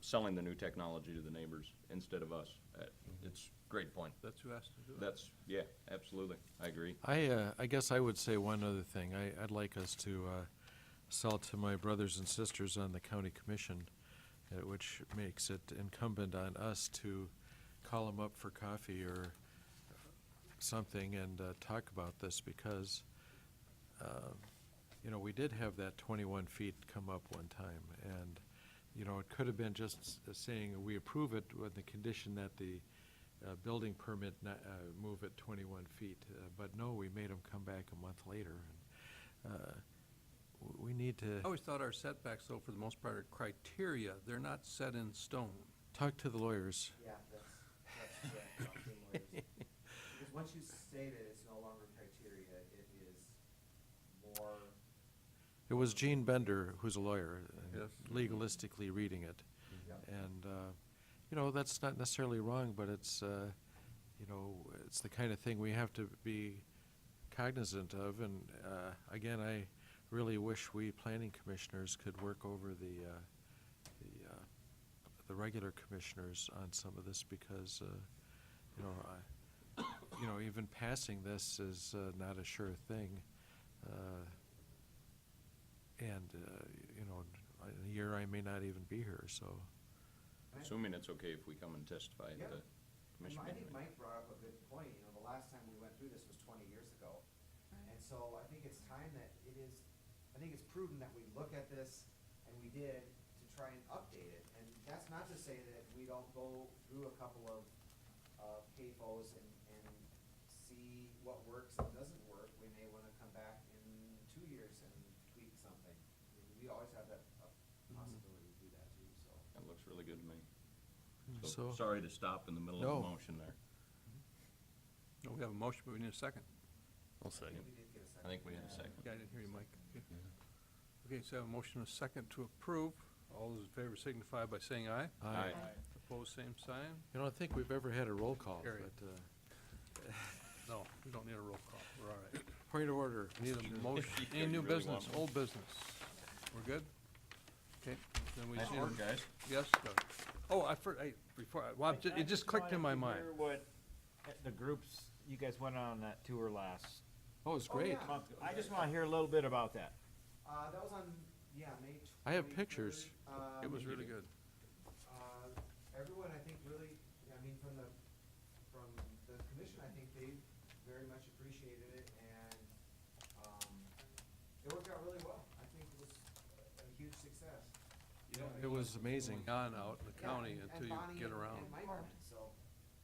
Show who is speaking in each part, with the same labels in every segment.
Speaker 1: selling the new technology to the neighbors instead of us. Uh, It's a great point.
Speaker 2: That's who has to do it.
Speaker 1: That's, yeah, absolutely. I agree.
Speaker 3: I, uh, I guess I would say one other thing. I, I'd like us to, uh, sell to my brothers and sisters on the county commission, uh, which makes it incumbent on us to call them up for coffee or something and, uh, talk about this because, um, you know, we did have that twenty-one feet come up one time and, you know, it could have been just s- uh, saying we approve it with the condition that the, uh, building permit not, uh, move at twenty-one feet, uh, but no, we made them come back a month later. and, uh, w- We need
Speaker 2: I
Speaker 3: to
Speaker 2: always thought our setbacks, though, for the most part, are criteria. They're not set in stone.
Speaker 3: talk to the lawyers.
Speaker 4: Yeah, that's, that's correct, Tom, same lawyers. Because once you say that it's no longer criteria, it is more,
Speaker 3: It was Gene Bender, who's a lawyer, uh,
Speaker 2: Yes.
Speaker 3: legalistically reading it.
Speaker 4: Yep.
Speaker 3: And, uh, you know, that's not necessarily wrong, but it's, uh, you know, it's the kind of thing we have to be cognizant of. And uh, again, I really wish we planning commissioners could work over the, uh, the, uh, the regular commissioners on some of this because, uh, you know, I, you know, even passing this is uh, not a sure thing. Uh, And, uh, you know, in a year I may not even be here, so.
Speaker 4: I-
Speaker 1: Assuming it's okay if we come and testify at
Speaker 4: Yeah.
Speaker 1: the
Speaker 4: And
Speaker 1: commission
Speaker 4: I think
Speaker 1: meeting. right?
Speaker 4: Mike brought up a good point, you know, the last time we went through this was twenty years ago. And so I think it's time that it is, I think it's prudent that we look at this, and we did, to try and update it. And that's not to say that we don't go through a couple of, of CAFOs and, and see what works and doesn't work. We may wanna come back in two years and tweak something. I mean, We always have that uh,
Speaker 1: Mm-hmm.
Speaker 4: possibility to do that too, so.
Speaker 1: That looks really good to me. So,
Speaker 3: So-
Speaker 1: sorry to stop in the middle of
Speaker 3: No.
Speaker 1: the motion there.
Speaker 2: No, We have a motion, but we need a second.
Speaker 5: I'll
Speaker 4: I
Speaker 5: second.
Speaker 4: think we did get a second.
Speaker 1: I think we had a second.
Speaker 2: Yeah, I didn't hear you, Mike. Okay. Okay, so I have a motion and a second to approve. All those in favor signify by saying aye.
Speaker 3: I-
Speaker 1: Aye.
Speaker 2: Opposed, same sign.
Speaker 3: You know, I think we've ever had a roll call,
Speaker 2: Carry.
Speaker 3: but, uh,
Speaker 2: No, we don't need a roll call. We're all right.
Speaker 3: point of order.
Speaker 2: We Need a motion,
Speaker 1: you
Speaker 2: any new
Speaker 1: really
Speaker 2: business,
Speaker 1: want one.
Speaker 2: old business. We're good? Okay, then we
Speaker 1: Nice
Speaker 2: see.
Speaker 1: work, guys.
Speaker 2: Yes, Doug. Oh, I, for- I, before, I- well, I'm ju-
Speaker 6: I
Speaker 2: it just clicked
Speaker 6: wanted
Speaker 2: in my
Speaker 6: to
Speaker 2: mind.
Speaker 6: hear What uh, the groups, you guys went on that tour last
Speaker 3: Oh, it's great.
Speaker 4: yeah.
Speaker 6: month. I just want to hear a little bit about that.
Speaker 4: Uh, that was on, yeah, May twenty-third.
Speaker 3: I have pictures.
Speaker 2: It was really good.
Speaker 4: uh, everyone, I think, really, I mean, from the, from the commission, I think they very much appreciated it, and, um, it worked out really well. I think it was a a huge success. You know, I
Speaker 3: It
Speaker 4: mean,
Speaker 3: was amazing.
Speaker 2: On out in the
Speaker 4: yeah,
Speaker 2: county
Speaker 4: and-
Speaker 2: until you get around.
Speaker 4: And Bonnie and- and Mike went, so,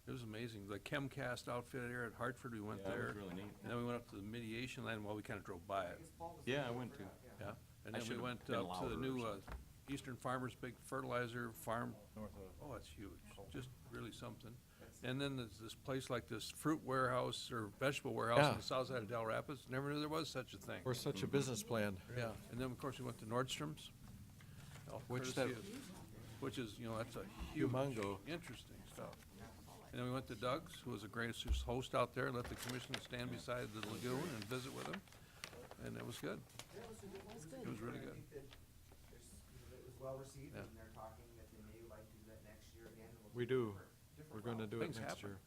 Speaker 2: It was amazing. The Chemcast outfit here at Hartford, we went
Speaker 1: Yeah, that was
Speaker 2: there.
Speaker 1: really neat.
Speaker 2: And then we went up to the mediation land while we kind of drove by
Speaker 4: I
Speaker 2: it,
Speaker 4: guess Paul was.
Speaker 1: Yeah,
Speaker 4: there,
Speaker 1: I went
Speaker 4: forgot, yeah.
Speaker 2: yeah. And
Speaker 1: I
Speaker 2: then we
Speaker 1: should've
Speaker 2: went
Speaker 1: been
Speaker 2: up to
Speaker 1: louder
Speaker 2: the
Speaker 1: or
Speaker 2: new uh,
Speaker 1: something.
Speaker 2: Eastern Farmers Big Fertilizer Farm.
Speaker 6: North of.
Speaker 2: Oh, it's huge. Just really something.
Speaker 4: That's-
Speaker 2: And then there's this place like this fruit warehouse or vegetable warehouse on
Speaker 3: Yeah.
Speaker 2: the south side of Del Rapids. Never knew there was such a thing.
Speaker 3: We're such a business plan.
Speaker 2: Yeah, and then, of course, we went to Nordstrom's. all
Speaker 3: Which that-
Speaker 2: Oh, courtesy of- Which is, you know, that's a huge,
Speaker 3: Humongo.
Speaker 2: interesting stuff. And then we went to Doug's, who was the greatest host out there, let the commission stand beside the lagoon and visit with him, and it was good. It was really
Speaker 4: I
Speaker 2: good.
Speaker 4: think that there's, you know, it was well received,
Speaker 2: Yeah.
Speaker 4: and they're talking that they may like to do that next year again. and we'll
Speaker 3: We do.
Speaker 4: do it for different
Speaker 3: We're gonna
Speaker 4: route.
Speaker 3: do it
Speaker 2: Things
Speaker 3: next
Speaker 2: happen.
Speaker 3: year.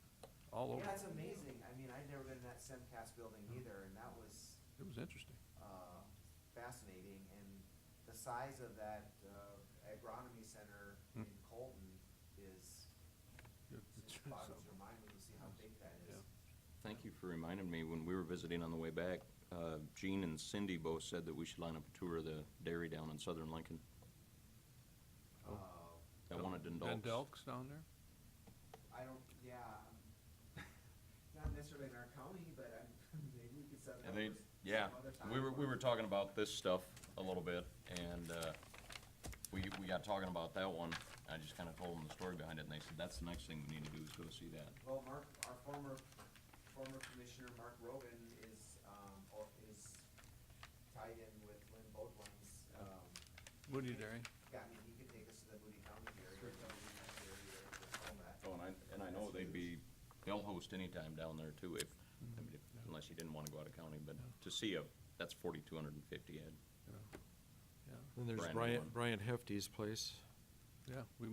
Speaker 2: All over.
Speaker 4: Yeah, it's amazing. I mean, I'd never been in that Semcast building
Speaker 3: Mm-hmm.
Speaker 4: either, and that was,
Speaker 2: It was interesting.
Speaker 4: uh, fascinating. And the size of that, uh, agronomy center
Speaker 3: Hmm.
Speaker 4: in Colton is,
Speaker 2: It- it's-
Speaker 4: it boggles your mind when you see how big that is.
Speaker 1: Thank you for reminding me, when we were visiting on the way back, uh, Gene and Cindy both said that we should line up a tour of the dairy down in southern Lincoln.
Speaker 4: Uh,
Speaker 3: Oh.
Speaker 1: I wanted to
Speaker 2: Van
Speaker 1: indulge.
Speaker 2: Delk's down there?
Speaker 4: I don't, yeah, um, not necessarily in our county, but I'm, maybe we could set it
Speaker 1: And
Speaker 4: up
Speaker 1: they,
Speaker 4: for s-
Speaker 1: yeah,
Speaker 4: some other
Speaker 1: we
Speaker 4: time
Speaker 1: were, we
Speaker 4: or-
Speaker 1: were talking about this stuff a little bit, and, uh, we, we got talking about that one, I just kinda told them the story behind it, and they said, that's the next thing we need to do is go see that.
Speaker 4: Well, Mark, our former, former commissioner, Mark Rogan, is, um, or is tied in with Lynn Bodwin's, um,
Speaker 2: Woody Dairy.
Speaker 4: yeah, I mean, he could take us to the Moody County area, or the Moody County area, or all that.
Speaker 1: Oh, and I, and I know they'd be, they'll host anytime down there too, if, I mean, if- unless you didn't wanna go out of county, but to see a, that's forty-two hundred and fifty, Ed.
Speaker 2: Yeah,
Speaker 3: Then there's
Speaker 1: Brand new
Speaker 3: Brian,
Speaker 1: one.
Speaker 3: Brian Hefty's place.
Speaker 2: yeah, we